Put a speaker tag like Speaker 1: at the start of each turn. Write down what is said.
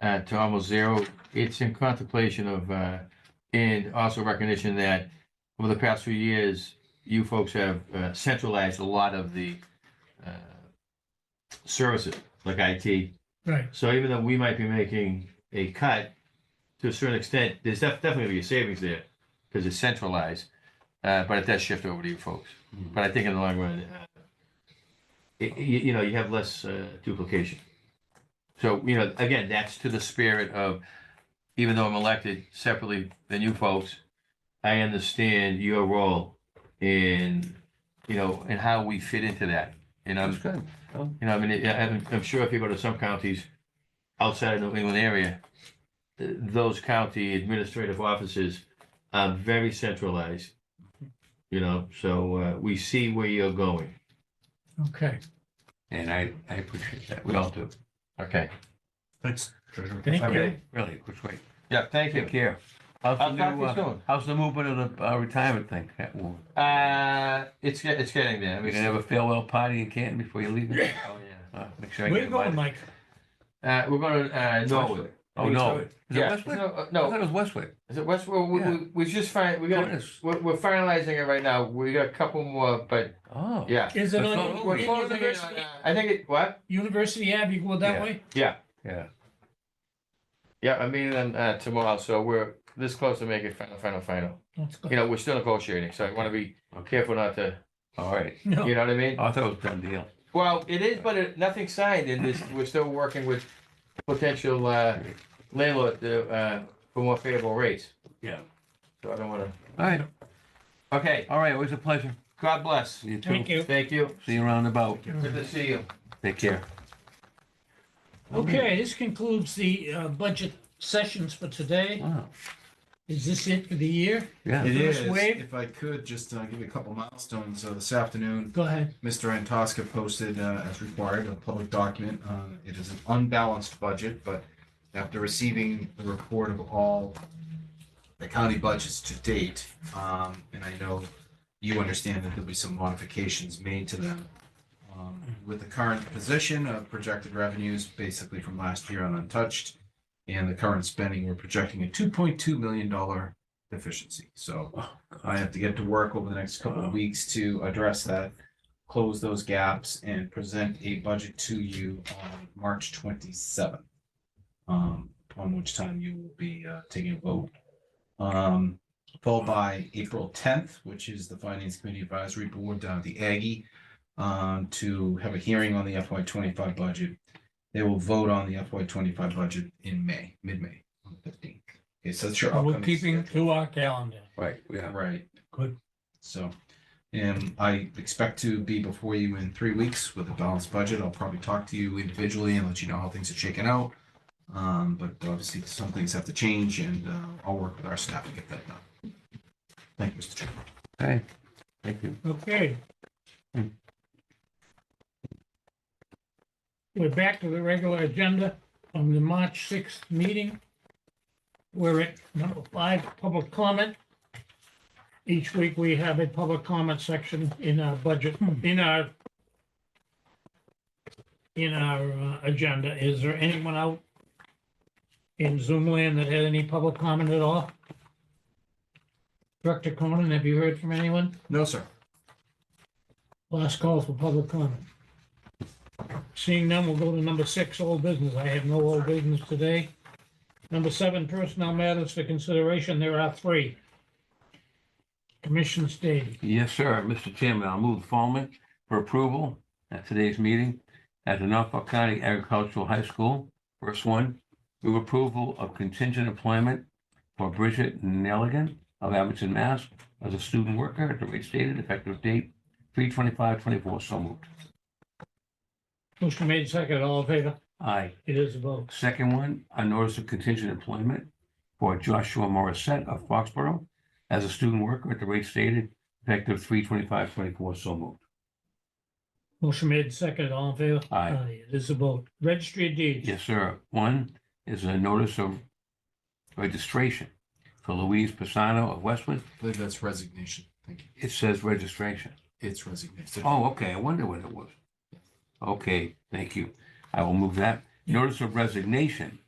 Speaker 1: uh, to almost zero. It's in contemplation of, uh, and also recognition that over the past few years, you folks have uh, centralized a lot of the, uh, services, like IT.
Speaker 2: Right,
Speaker 1: So even though we might be making a cut, to a certain extent, there's def- definitely gonna be a savings there, because it's centralized. Uh, but it does shift over to you folks. But I think in the long run, uh, it, you, you know, you have less, uh, duplication. So, you know, again, that's to the spirit of, even though I'm elected separately than you folks, I understand your role in, you know, and how we fit into that. And I'm,
Speaker 3: That's good.
Speaker 1: you know, I mean, it- I- I'm, I'm sure if you go to some counties outside of the New England area, th- those county administrative offices are very centralized. You know, so uh, we see where you're going.
Speaker 2: okay.
Speaker 3: And I, I appreciate that. We all do.
Speaker 1: Okay.
Speaker 4: Thanks.
Speaker 2: Thank
Speaker 3: I
Speaker 2: you.
Speaker 3: really, really, which way?
Speaker 1: Yeah, thank
Speaker 3: Take care.
Speaker 1: I'll
Speaker 3: How's the
Speaker 1: talk to
Speaker 3: new,
Speaker 1: you
Speaker 3: uh,
Speaker 1: soon.
Speaker 3: how's the movement of the uh, retirement thing? That will-
Speaker 1: Uh, it's, get- it's getting there. I
Speaker 3: We're
Speaker 1: mean,
Speaker 3: gonna have a farewell party in Canton before you leave.
Speaker 1: oh, yeah.
Speaker 3: Uh, Make sure I
Speaker 2: Where
Speaker 3: get
Speaker 2: you going,
Speaker 3: invited.
Speaker 2: Mike?
Speaker 1: Uh, we're going to, uh, Norwood.
Speaker 3: Oh, no. Is it
Speaker 1: Yeah,
Speaker 3: Westwood?
Speaker 1: no, uh,
Speaker 3: I
Speaker 1: no,
Speaker 3: thought it was Westwood.
Speaker 1: Is it West, well, we,
Speaker 3: Yeah.
Speaker 1: we, we just find, we got,
Speaker 3: Curtis.
Speaker 1: we're, we're finalizing it right now. We got a couple more, but
Speaker 3: Oh.
Speaker 1: yeah.
Speaker 2: Is it
Speaker 3: That's
Speaker 2: on
Speaker 3: not-
Speaker 2: U-
Speaker 1: We're
Speaker 3: Okay.
Speaker 1: closing it on,
Speaker 2: University,
Speaker 1: uh, I think it, what?
Speaker 2: University Avenue, go
Speaker 3: Yeah.
Speaker 2: that way?
Speaker 3: Yeah.
Speaker 1: Yeah, I'm meeting them, uh, tomorrow, so we're this close to making final, final, final.
Speaker 2: That's good.
Speaker 1: You know, we're still negotiating, so I wanna be
Speaker 3: Okay.
Speaker 1: careful not to,
Speaker 3: All right.
Speaker 2: No,
Speaker 1: you know what I mean?
Speaker 3: Oh, I thought it was done deal.
Speaker 1: Well, it is, but it, nothing signed, and this, we're still working with potential, uh, landlord, to, uh, for more favorable rates.
Speaker 3: Yeah.
Speaker 1: So I don't wanna,
Speaker 3: All right.
Speaker 1: okay,
Speaker 3: All right. Always a pleasure.
Speaker 1: God bless.
Speaker 3: You too.
Speaker 2: thank you.
Speaker 1: Thank you.
Speaker 3: See you around about.
Speaker 1: Good to see you.
Speaker 3: Take care.
Speaker 2: Okay, this concludes the uh, budget sessions for today.
Speaker 3: Wow.
Speaker 2: Is this it for the year?
Speaker 3: Yeah.
Speaker 4: It
Speaker 2: First
Speaker 4: is,
Speaker 2: wave.
Speaker 4: if I could, just uh, give you a couple milestones. Uh, This afternoon,
Speaker 2: Go ahead.
Speaker 4: Mr. Antosca posted, uh, as required, a public document. Uh, It is an unbalanced budget, but after receiving the report of all the county budgets to date, um, and I know you understand that there'll be some modifications made to them. um, With the current position of projected revenues, basically from last year on untouched, and the current spending, we're projecting a two point two million dollar deficiency. So
Speaker 2: Oh,
Speaker 4: I have to get to work over the next couple of weeks to address that, close those gaps and present a budget to you on March twenty-seventh. Um, on which time you will be, uh, taking a vote. Um, followed by April tenth, which is the Finance Committee Advisory Board down at the Aggie, um, to have a hearing on the FY twenty-five budget. They will vote on the FY twenty-five budget in May, mid-May, on the fifteenth. Okay, so that's your
Speaker 2: We're
Speaker 4: upcoming.
Speaker 2: keeping
Speaker 4: schedule.
Speaker 2: to our calendar.
Speaker 3: Right. Yeah.
Speaker 4: Right.
Speaker 2: Good.
Speaker 4: So, and I expect to be before you in three weeks with a balanced budget. I'll probably talk to you individually and let you know how things are shaking out. Um, but obviously some things have to change and, uh, I'll work with our staff to get that done. Thank you, Mr. Chairman.
Speaker 3: Okay. Thank you.
Speaker 2: Okay. We're back to the regular agenda of the March sixth meeting. We're at number five, public comment. Each week we have a public comment section in our budget, in our in our uh, agenda. Is there anyone out in Zoom land that had any public comment at all? Director Conan, have you heard from anyone?
Speaker 4: No, sir.
Speaker 2: Last call for public comment. Seeing none, we'll go to number six, old business. I have no old business today. Number seven, personnel matters for consideration. There are three. Commission stated.
Speaker 3: Yes, sir. Mr. Chairman, I'll move the following for approval at today's meeting at the Norfolk County Agricultural High School. First one, move approval of contingent employment for Bridget Nelligan of Abington, Mass. as a student worker at the rate stated effective date three twenty-five twenty-four. So moved.
Speaker 2: Motion made second, all in favor?
Speaker 3: Aye.
Speaker 2: It is a vote.
Speaker 3: Second one, a notice of contingent employment for Joshua Morissette of Foxborough as a student worker at the rate stated effective three twenty-five twenty-four. So moved.
Speaker 2: Motion made second, all in favor?
Speaker 3: Aye.
Speaker 2: It is a vote. Registry of deeds.
Speaker 3: Yes, sir. One is a notice of registration for Louise Pisano of Westwood.
Speaker 4: I believe that's resignation. Thank you.
Speaker 3: It says registration.
Speaker 4: It's resignation.
Speaker 3: Oh, okay. I wonder what it was. Okay, thank you. I will move that. Notice of resignation